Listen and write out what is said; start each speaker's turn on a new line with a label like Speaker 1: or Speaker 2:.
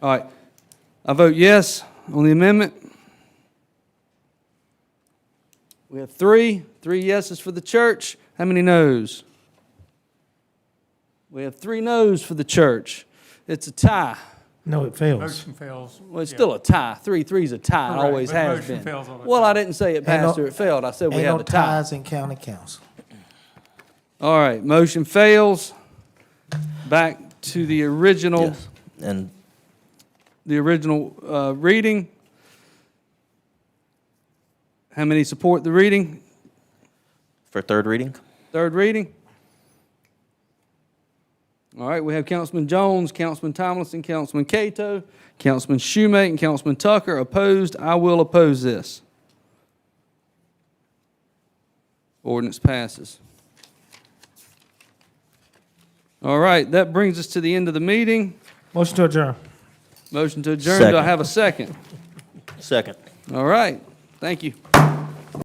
Speaker 1: All right. I vote yes on the amendment. We have three, three yeses for the church. How many noes? We have three noes for the church. It's a tie.
Speaker 2: No, it fails.
Speaker 3: Motion fails.
Speaker 1: Well, it's
Speaker 3: Yeah.
Speaker 1: still a tie. Three, three's a tie. It
Speaker 3: Correct,
Speaker 1: always
Speaker 3: but
Speaker 1: has
Speaker 3: motion
Speaker 1: been.
Speaker 3: fails all the
Speaker 1: Well, I
Speaker 3: time.
Speaker 1: didn't say it
Speaker 2: Ain't no-
Speaker 1: passed or it failed. I said we
Speaker 2: Ain't no
Speaker 1: have a tie.
Speaker 2: ties in county council.
Speaker 1: All right, motion fails. Back to the original,
Speaker 4: Yes. And
Speaker 1: the original uh, reading. How many support the reading,
Speaker 4: for third reading?
Speaker 1: third reading? All right, we have Councilman Jones, Councilman Tomlinson, Councilman Cato, Councilman Schumate, and Councilman Tucker opposed. I will oppose this. Ordinance passes. All right, that brings us to the end of the meeting.
Speaker 2: Motion to adjourn.
Speaker 1: Motion to adjourn. Do I
Speaker 4: Second.
Speaker 1: have a second?
Speaker 4: Second.
Speaker 1: All right. Thank you.